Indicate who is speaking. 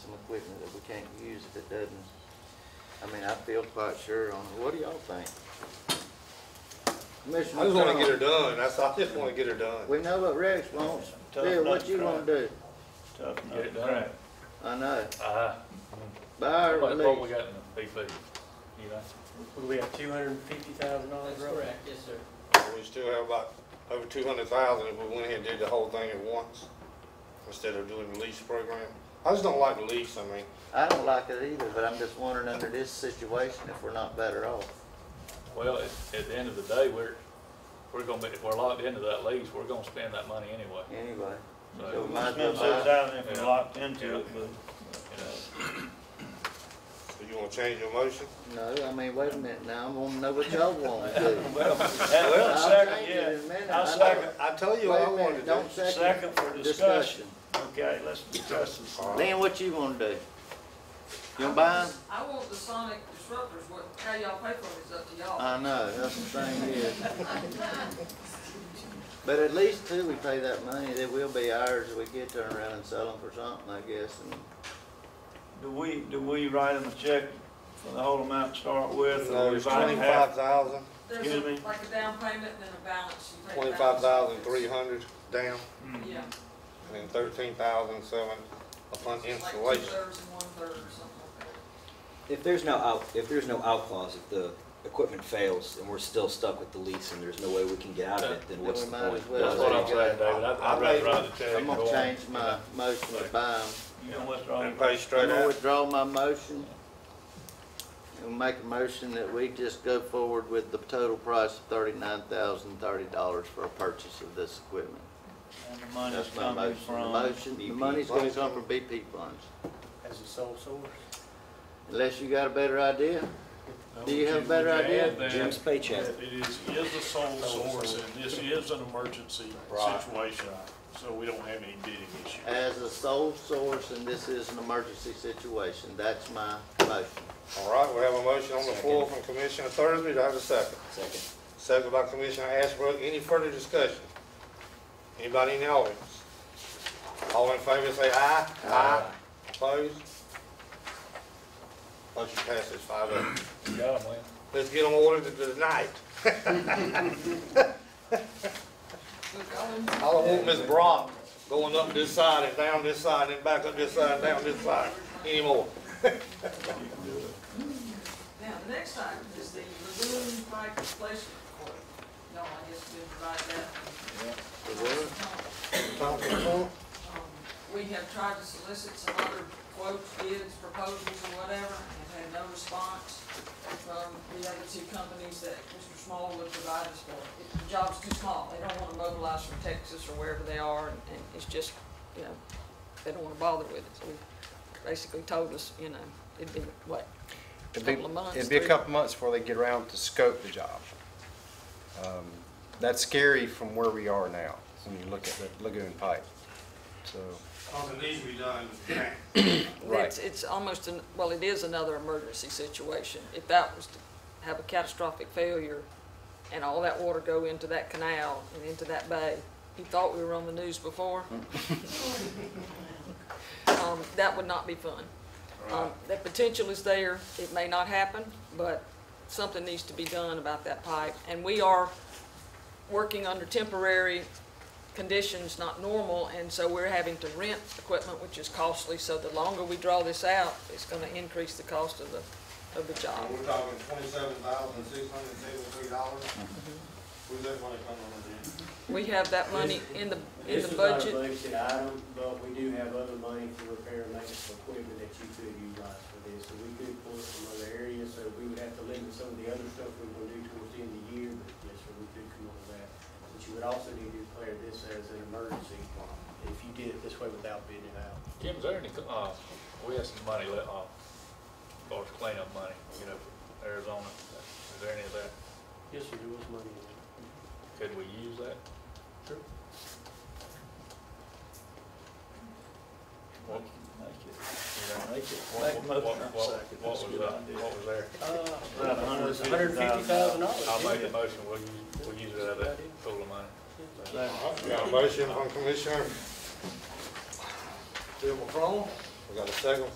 Speaker 1: equipment that we can't use if it doesn't. I mean, I feel quite sure on, it. what do y'all think?
Speaker 2: I just wanna
Speaker 1: Commissioner
Speaker 2: get her
Speaker 1: Tom,
Speaker 2: done, that's, I just wanna get her done.
Speaker 1: we know what Rex wants.
Speaker 3: Tough
Speaker 1: Bill,
Speaker 3: nut
Speaker 1: what
Speaker 3: to
Speaker 1: you
Speaker 3: crack.
Speaker 1: wanna do?
Speaker 3: Tough
Speaker 4: Get it
Speaker 3: nut to
Speaker 4: done.
Speaker 3: crack.
Speaker 1: I know.
Speaker 4: Uh,
Speaker 1: Buy or
Speaker 4: what, what we
Speaker 1: release?
Speaker 4: got in the PP, you know?
Speaker 5: We have two hundred and fifty thousand dollars
Speaker 6: That's correct, yes, sir.
Speaker 2: We still have about over two hundred thousand if we went ahead and did the whole thing at once, instead of doing the lease program. I just don't like the lease, I mean,
Speaker 1: I don't like it either, but I'm just wondering under this situation if we're not better off.
Speaker 4: Well, at, at the end of the day, we're, we're gonna be, if we're locked into that lease, we're gonna spend that money anyway.
Speaker 1: Anyway, so
Speaker 4: So,
Speaker 1: we might as well
Speaker 3: Spend
Speaker 1: buy.
Speaker 3: six thousand if
Speaker 4: Yeah.
Speaker 3: we're locked into
Speaker 4: Yeah.
Speaker 3: it, but.
Speaker 4: you know,
Speaker 2: so you wanna change your motion?
Speaker 1: No, I mean, wait a minute now, I wanna know what y'all wanna do.
Speaker 3: Well,
Speaker 1: I'll
Speaker 3: well,
Speaker 1: change it
Speaker 3: second,
Speaker 1: in a minute.
Speaker 3: yeah.
Speaker 1: I
Speaker 3: I'll
Speaker 1: know.
Speaker 3: second,
Speaker 2: I tell you what
Speaker 1: Wait a
Speaker 2: I
Speaker 1: minute,
Speaker 2: wanted to do.
Speaker 1: don't second.
Speaker 3: second for discussion.
Speaker 1: Discussion.
Speaker 3: Okay, let's discuss this.
Speaker 2: All right.
Speaker 1: Then what you wanna do? You gonna buy 'em?
Speaker 6: I want the sonic disruptors, what, how y'all pay for it is up to
Speaker 2: Uh,
Speaker 6: y'all.
Speaker 1: I know, that's the thing is. But at least till we pay that money, it will be ours if we get turn around and sell them for something, I guess, and
Speaker 3: Do we, do we write them a check for the whole amount to start with? or
Speaker 2: No,
Speaker 3: we
Speaker 2: it's
Speaker 3: buy them
Speaker 2: twenty-five
Speaker 3: half?
Speaker 2: thousand,
Speaker 6: There's
Speaker 3: Excuse me?
Speaker 6: a- like a down payment and then a balance. you pay the
Speaker 2: twenty-five
Speaker 6: balance.
Speaker 2: thousand three hundred down,
Speaker 3: Hmm.
Speaker 6: Yeah,
Speaker 2: and then thirteen thousand seven upon
Speaker 6: like
Speaker 2: installation.
Speaker 6: two thirds and one third or something like that.
Speaker 7: If there's no out, if there's no out clause, if the equipment fails and we're still stuck with the lease and there's no way we can get out of it, then
Speaker 1: Then
Speaker 7: what's
Speaker 1: we
Speaker 7: the
Speaker 1: might as
Speaker 7: point?
Speaker 1: well.
Speaker 4: That's what I'm saying, David, I'd, I'd rather write the check.
Speaker 1: I'm
Speaker 4: and go
Speaker 1: gonna
Speaker 4: on.
Speaker 1: change my motion to buy 'em.
Speaker 3: You know what's
Speaker 2: And
Speaker 3: wrong?
Speaker 2: pay
Speaker 1: I'm
Speaker 2: straight
Speaker 1: gonna
Speaker 2: out.
Speaker 1: withdraw my motion. And make a motion that we just go forward with the total price of thirty-nine thousand thirty dollars for a purchase of this equipment.
Speaker 3: And the money's
Speaker 1: That's my
Speaker 3: coming
Speaker 1: motion. The
Speaker 3: from,
Speaker 1: motion, the
Speaker 7: BP
Speaker 1: money's gonna
Speaker 2: funds.
Speaker 1: come from BP funds.
Speaker 5: as a sole source.
Speaker 1: Unless you got a better idea? Do you have a better idea?
Speaker 7: Jim's paycheck.
Speaker 8: It is, is a sole source, and this is an emergency
Speaker 2: Right.
Speaker 8: situation, so we don't have any bidding issue.
Speaker 1: As a sole source, and this is an emergency situation, that's my motion.
Speaker 2: All right, we have a motion on the floor from Commissioner Thursby, do I have a second?
Speaker 7: Second.
Speaker 2: Second by Commissioner Ashbrook, any further discussion? Anybody in the audience? All in favor, say aye. Aye. Opposed? Motion passes five oh.
Speaker 4: You got 'em, Lynn.
Speaker 2: Let's get on order to tonight.
Speaker 6: Look, I wouldn't-
Speaker 2: I don't want Miss Brock going up this side and down this side and back up this side and down this side anymore.
Speaker 6: Now, the next item is the lagoon pipe replacement report. No, I guess we provide that. Um, We have tried to solicit some other quotes, bids, proposals, or whatever, and had no response from the other two companies that Mr. Small would provide us for. It- The job's too small, they don't wanna mobilize from Texas or wherever they are, and and it's just, you know, they don't wanna bother with it, so we basically told us, you know, it'd be, what,
Speaker 9: It'd be,
Speaker 6: Couple of months,
Speaker 9: it'd be a
Speaker 6: three.
Speaker 9: couple months before they get around to scope the job. Um, That's scary from where we are now, when you look at the lagoon pipe, so.
Speaker 2: Cause it needs to be done.
Speaker 9: Right.
Speaker 6: It's, it's almost an, well, it is another emergency situation. If that was to have a catastrophic failure and all that water go into that canal and into that bay, you thought we were on the news before? Um, that would not be fun. Um, that potential is there. It may not happen, but something needs to be done about that pipe. And we are working under temporary conditions, not normal, and so we're having to rent equipment, which is costly, so the longer we draw this out, it's gonna increase the cost of the, of the job.
Speaker 2: Uh, We're talking twenty-seven thousand, six hundred and seventy-three dollars. Where's that money coming from? then?
Speaker 6: We have that money in the, in
Speaker 5: This
Speaker 6: the
Speaker 5: is not a
Speaker 6: budget.
Speaker 5: budget item, but we do have other money for repair and maintenance of equipment that you could utilize for this. So we could pull it from other areas, so we would have to limit some of the other stuff we want to do towards the end of the year, but yes, sir, we could come up with that. But you would also need to declare this as an emergency if you did it this way without bidding it out.
Speaker 4: Jim, is there any, uh, we have some money left, uh, for cleanup money, you know, for Arizona, is there any of that?
Speaker 5: Yes, sir, there was money in there.
Speaker 4: Could we use that?
Speaker 5: Sure.
Speaker 4: What,
Speaker 3: make it,
Speaker 4: what,
Speaker 3: make a
Speaker 4: what, what,
Speaker 3: motion
Speaker 4: what
Speaker 3: for second.
Speaker 4: what
Speaker 3: That's
Speaker 4: was,
Speaker 3: a good
Speaker 4: uh,
Speaker 3: idea.
Speaker 4: what was there?
Speaker 3: About a hundred and fifty thousand
Speaker 5: dollars.
Speaker 4: I'll make a motion, we'll use, we'll use it out of that pool of money.
Speaker 2: We got a motion from Commissioner Bill McCrone. We got a second